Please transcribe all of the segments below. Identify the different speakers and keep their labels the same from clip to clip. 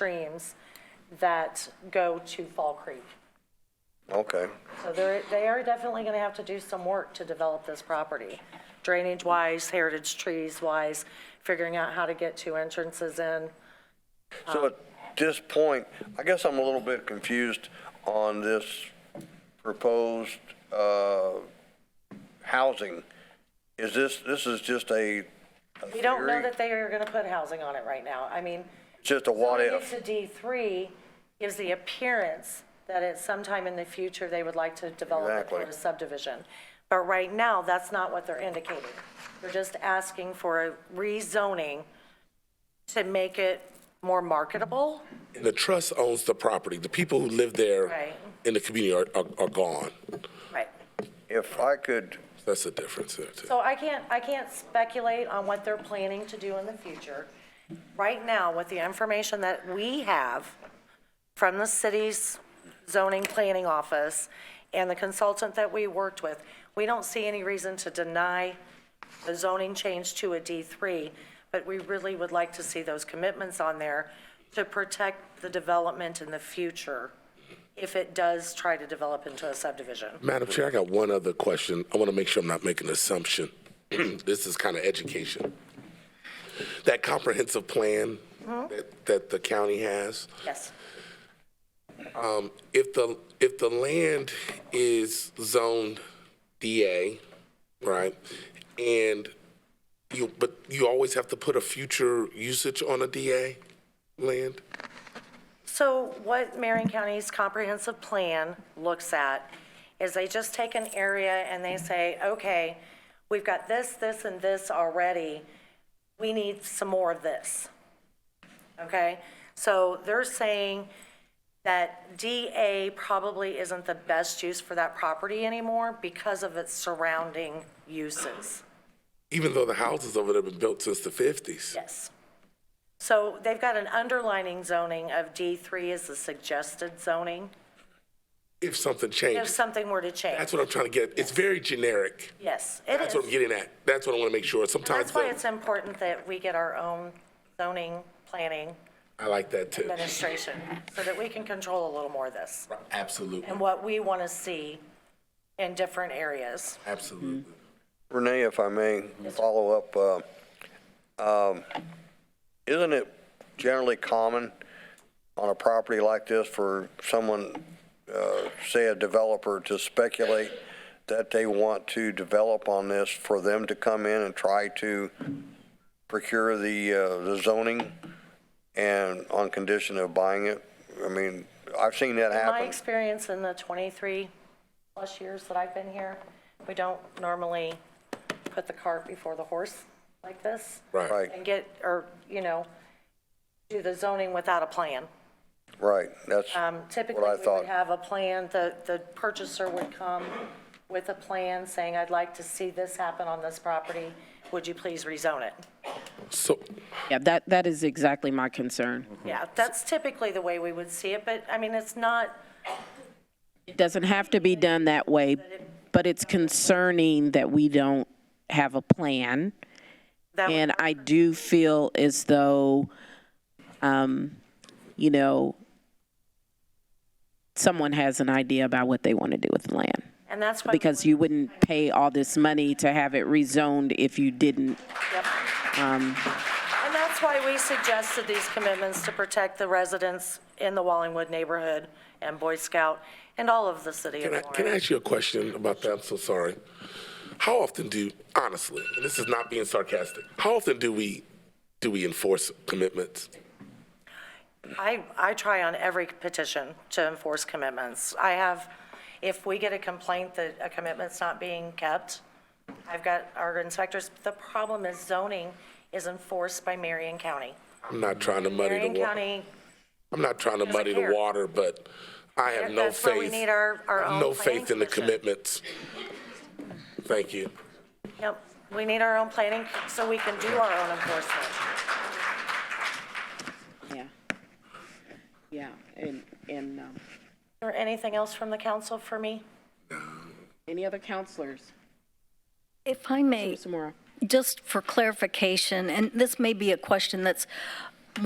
Speaker 1: streams that go to Fall Creek.
Speaker 2: Okay.
Speaker 1: So they're, they are definitely going to have to do some work to develop this property, drainage-wise, heritage trees-wise, figuring out how to get two entrances in. Um,
Speaker 2: So at this point, I guess I'm a little bit confused on this proposed uh, housing. Is this, this is just a a
Speaker 1: We don't know
Speaker 2: theory?
Speaker 1: that they are going to put housing on it right now. I mean,
Speaker 2: Just a what
Speaker 1: zoning
Speaker 2: if?
Speaker 1: it to D3 gives the appearance that at some time in the future, they would like to develop it for
Speaker 2: Exactly.
Speaker 1: a subdivision. But right now, that's not what they're indicating. They're just asking for a rezoning to make it more marketable.
Speaker 3: The trust owns the property. The people who live there
Speaker 1: Right.
Speaker 3: in the community are, are are gone.
Speaker 1: Right.
Speaker 2: If I could,
Speaker 3: That's the difference there, too.
Speaker 1: So I can't, I can't speculate on what they're planning to do in the future. Right now, with the information that we have from the city's zoning planning office and the consultant that we worked with, we don't see any reason to deny the zoning change to a D3, but we really would like to see those commitments on there to protect the development in the future if it does try to develop into a subdivision.
Speaker 3: Madam Chair, I got one other question. I want to make sure I'm not making an assumption. This is kind of education. That comprehensive plan that, that the county has,
Speaker 1: Yes.
Speaker 3: if the, if the land is zoned DA, right? And you, but you always have to put a future usage on a DA land?
Speaker 1: So what Marion County's comprehensive plan looks at is they just take an area and they say, okay, we've got this, this, and this already. We need some more of this. Okay? So they're saying that DA probably isn't the best use for that property anymore because of its surrounding uses.
Speaker 3: Even though the houses over there have been built since the 50s?
Speaker 1: Yes. So they've got an underlining zoning of D3 as the suggested zoning.
Speaker 3: If something
Speaker 1: If
Speaker 3: changes,
Speaker 1: something were to change.
Speaker 3: that's what I'm trying to get. It's very generic.
Speaker 1: Yes, it
Speaker 3: That's what I'm
Speaker 1: is.
Speaker 3: getting at. That's what I want to make sure. Sometimes
Speaker 1: That's why
Speaker 3: the-
Speaker 1: it's important that we get our own zoning, planning,
Speaker 3: I like that too.
Speaker 1: administration, so that we can control a little more of this
Speaker 3: Absolutely,
Speaker 1: and what we want to see in different areas.
Speaker 3: absolutely.
Speaker 2: Renee, if I may, follow up. uh, um, Isn't it generally common on a property like this for someone, uh, say a developer, to speculate that they want to develop on this for them to come in and try to procure the uh, the zoning and on condition of buying it? I mean, I've seen that
Speaker 1: My
Speaker 2: happen.
Speaker 1: experience in the 23-plus years that I've been here, we don't normally put the cart before the horse like this
Speaker 3: Right.
Speaker 2: Right,
Speaker 1: and get, or, you know, do the zoning without a plan.
Speaker 2: right, that's,
Speaker 1: Um, Typically,
Speaker 2: What I
Speaker 1: we would
Speaker 2: thought.
Speaker 1: have a plan, the, the purchaser would come with a plan saying, I'd like to see this happen on this property, would you please rezone it?
Speaker 3: So,
Speaker 4: Yeah, that, that is exactly my concern.
Speaker 1: Yeah, that's typically the way we would see it, but, I mean, it's not,
Speaker 4: It doesn't have to be done that way, but it's concerning that we don't have a plan.
Speaker 1: that would
Speaker 4: And I do feel as though, um, you know, someone has an idea about what they want to do with the land.
Speaker 1: and that's why. we
Speaker 4: Because you wouldn't pay all this money to have it rezoned if you didn't.
Speaker 1: Yep. And that's why we suggested these commitments to protect the residents in the Wallingwood neighborhood and Boy Scout and all of the city of
Speaker 3: can I, can I
Speaker 1: Warren.
Speaker 3: ask you a question about that? I'm so sorry. How often do, honestly, and this is not being sarcastic, how often do we, do we enforce commitments?
Speaker 1: I, I try on every petition to enforce commitments. I have, if we get a complaint that a commitment's not being kept, I've got our inspectors, the problem is zoning is enforced by Marion County.
Speaker 3: I'm not trying to muddy
Speaker 1: Marion
Speaker 3: the water.
Speaker 1: County,
Speaker 3: I'm not trying to muddy the
Speaker 1: care.
Speaker 3: water, but I have no
Speaker 1: that's where we
Speaker 3: faith.
Speaker 1: need our, our
Speaker 3: I have
Speaker 1: own.
Speaker 3: No
Speaker 1: planning
Speaker 3: faith in the
Speaker 1: commission.
Speaker 3: commitments. Thank you.
Speaker 1: Yep, we need our own planning so we can do our own enforcement.
Speaker 4: Yeah. Yeah, and, and, um,
Speaker 1: Or anything else from the council for me?
Speaker 4: any other counselors?
Speaker 5: If I may,
Speaker 4: Mr. Mora?
Speaker 5: just for clarification, and this may be a question that's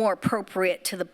Speaker 5: more appropriate to the